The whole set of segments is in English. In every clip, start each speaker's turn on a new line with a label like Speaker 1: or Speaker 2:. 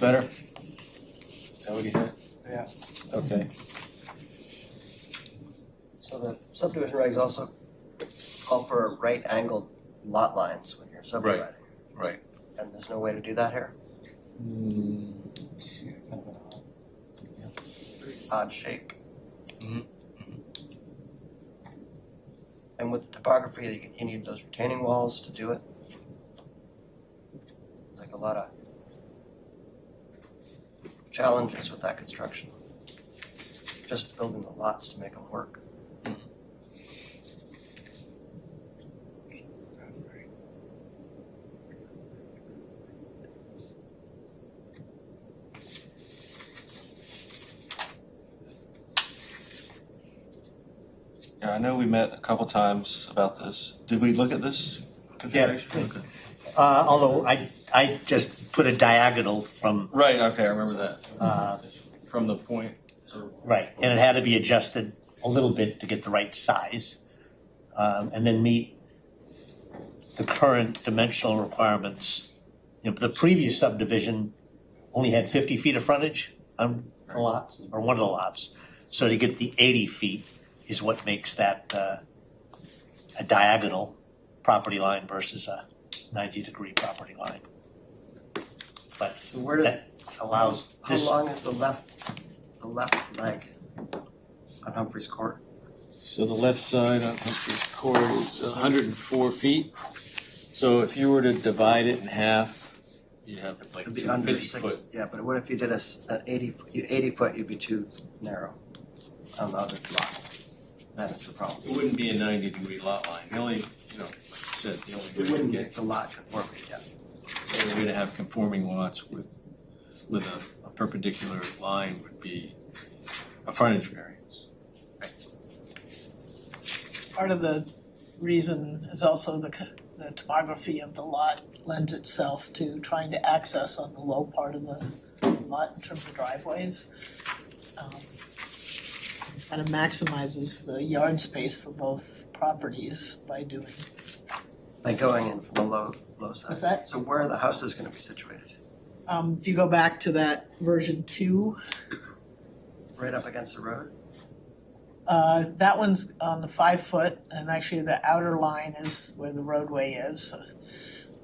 Speaker 1: Better? Is that what you had?
Speaker 2: Yeah.
Speaker 1: Okay,
Speaker 3: So the subdivision regs also call for right angled lot lines when you're subdividing.
Speaker 1: right.
Speaker 3: And there's no way to do that here,
Speaker 1: Hmm.
Speaker 3: odd shape.
Speaker 1: Mhm.
Speaker 3: And with the topography, you- you need those retaining walls to do it. Like a lot of challenges with that construction. Just building the lots to make them work.
Speaker 1: Yeah, I know we met a couple times about this. Did we look at this configuration? Okay.
Speaker 4: Uh, although I, I just put a diagonal from,
Speaker 1: Right, okay, I remember that.
Speaker 4: uh,
Speaker 1: From the point, or-
Speaker 4: right, and it had to be adjusted a little bit to get the right size. Um, and then meet the current dimensional requirements. You know, the previous subdivision only had fifty feet of frontage on the lots, or one of the lots. So to get the eighty feet is what makes that, uh, a diagonal property line versus a ninety-degree property line. But
Speaker 3: So where does,
Speaker 4: That allows
Speaker 3: how
Speaker 4: this,
Speaker 3: long is the left, the left leg on Humphreys Court?
Speaker 1: So the left side on Humphreys Court is hundred and four feet. So if you were to divide it in half, you'd have like
Speaker 3: It'd be under
Speaker 1: fifty
Speaker 3: six,
Speaker 1: foot.
Speaker 3: yeah, but what if you did a, s- an eighty, you eighty foot, you'd be too narrow on the other lot. That is the problem.
Speaker 1: It wouldn't be a ninety degree lot line. The only, you know, like you said, the only
Speaker 3: It
Speaker 1: way to
Speaker 3: wouldn't
Speaker 1: get
Speaker 3: make the lot conformity, yeah.
Speaker 1: The way to have conforming lots with, with a- a perpendicular line would be a frontage variance.
Speaker 5: part of the reason is also the, co- the topography of the lot lends itself to trying to access on the low part of the lot in terms of driveways. Um, Kind of maximizes the yard space for both properties by doing,
Speaker 3: By going in from the low, low side.
Speaker 5: What's that?
Speaker 3: So where are the houses gonna be situated?
Speaker 5: um, if you go back to that version two,
Speaker 3: Right up against the road?
Speaker 5: Uh, that one's on the five foot, and actually the outer line is where the roadway is.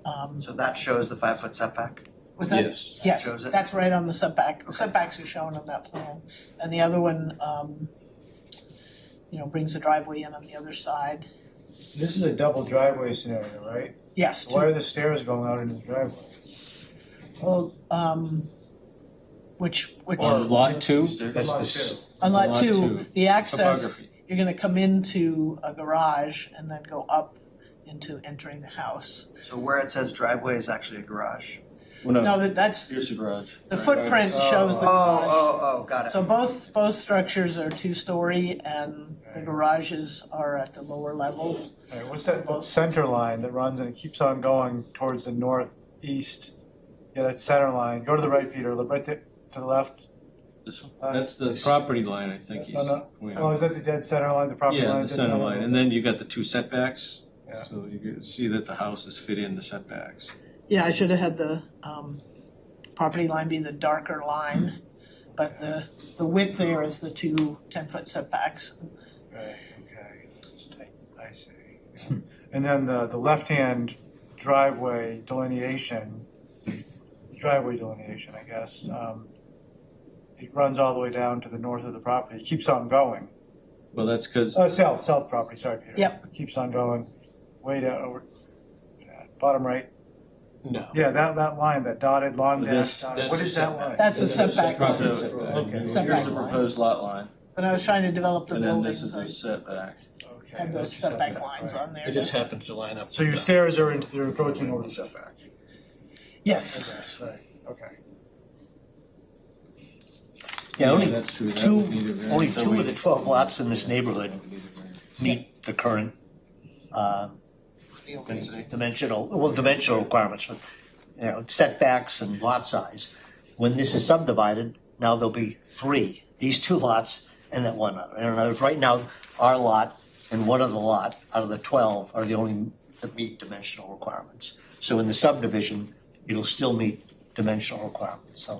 Speaker 5: Um,
Speaker 3: So that shows the five foot setback?
Speaker 5: was that?
Speaker 1: Yes.
Speaker 5: Yes,
Speaker 3: Shows it.
Speaker 5: that's right on the setback,
Speaker 3: Okay.
Speaker 5: setbacks are shown on that plan, and the other one, um, you know, brings the driveway in on the other side,
Speaker 2: This is a double driveway scenario, right?
Speaker 5: yes,
Speaker 2: Why
Speaker 5: to,
Speaker 2: are the stairs going out into the driveway?
Speaker 5: well, um, which, which,
Speaker 1: Or lot two?
Speaker 4: that's
Speaker 2: Lot two.
Speaker 4: the, s-
Speaker 5: on lot
Speaker 1: lot
Speaker 5: two,
Speaker 1: two,
Speaker 5: the access,
Speaker 1: Topography.
Speaker 5: you're gonna come into a garage and then go up into entering the house.
Speaker 3: So where it says driveway is actually a garage?
Speaker 1: Well,
Speaker 5: No,
Speaker 1: no,
Speaker 5: that, that's,
Speaker 1: here's the garage.
Speaker 5: the
Speaker 1: Right.
Speaker 5: footprint
Speaker 2: Oh.
Speaker 5: shows
Speaker 3: Oh,
Speaker 5: the garage.
Speaker 3: oh, oh, got it.
Speaker 5: So both, both structures are two-story and the
Speaker 2: Right.
Speaker 5: garages are at the lower level.
Speaker 2: Right, what's that, that center line that runs and it keeps on going towards the northeast? Yeah, that center line, go to the right, Peter, look right to, to the left.
Speaker 1: This one?
Speaker 2: Uh,
Speaker 1: That's the property line, I think he's.
Speaker 2: No, no.
Speaker 1: pointing
Speaker 2: Oh,
Speaker 1: out.
Speaker 2: is that the dead center line, the property line?
Speaker 1: Yeah, the
Speaker 2: dead
Speaker 1: center line, and then you've got the two setbacks.
Speaker 2: Yeah.
Speaker 1: So you can see that the houses fit in the setbacks.
Speaker 5: Yeah, I should have had the um, property line be the darker line, but the, the width there is the two 10-foot setbacks.
Speaker 2: Right, okay, I see. yeah. And then the, the left-hand driveway delineation, driveway delineation, I guess, um, it runs all the way down to the north of the property, it keeps on going.
Speaker 1: Well, that's because,
Speaker 2: Uh, south, south property, sorry, Peter.
Speaker 5: Yep.
Speaker 2: Keeps on going, way down over, yeah, bottom right,
Speaker 1: no.
Speaker 2: yeah, that, that line, that dotted, long
Speaker 1: That's-
Speaker 2: dash dotted,
Speaker 1: that's
Speaker 2: what
Speaker 1: a
Speaker 2: is that
Speaker 1: setback.
Speaker 2: line?
Speaker 5: That's the
Speaker 1: That's a
Speaker 5: setback
Speaker 1: Here's
Speaker 5: line.
Speaker 2: Okay.
Speaker 1: the
Speaker 5: Setback line.
Speaker 1: proposed lot line,
Speaker 5: But I was trying to develop the
Speaker 1: and then this
Speaker 5: buildings
Speaker 1: is the
Speaker 5: and
Speaker 1: setback.
Speaker 2: Okay,
Speaker 5: have
Speaker 2: that's
Speaker 5: those
Speaker 2: the
Speaker 5: setback lines
Speaker 2: right.
Speaker 5: on there.
Speaker 6: It just happens to line up.
Speaker 2: So your
Speaker 6: with the-
Speaker 2: stairs are into, they're approaching over the setback.
Speaker 5: Yes,
Speaker 2: Okay.
Speaker 4: yeah, only
Speaker 1: That's true. That
Speaker 4: two,
Speaker 1: would need a variance.
Speaker 4: only
Speaker 1: That
Speaker 4: two
Speaker 1: would-
Speaker 4: of the twelve lots in this neighborhood
Speaker 1: would need a variance.
Speaker 4: meet the current, uh, dimensional, well, dimensional requirements for, you know, setbacks and lot size. When this is subdivided, now there'll be three, these two lots and that one other. And in other words, right now, our lot and one other lot out of the twelve are the only that meet dimensional requirements. So in the subdivision, it'll still meet dimensional requirements, so.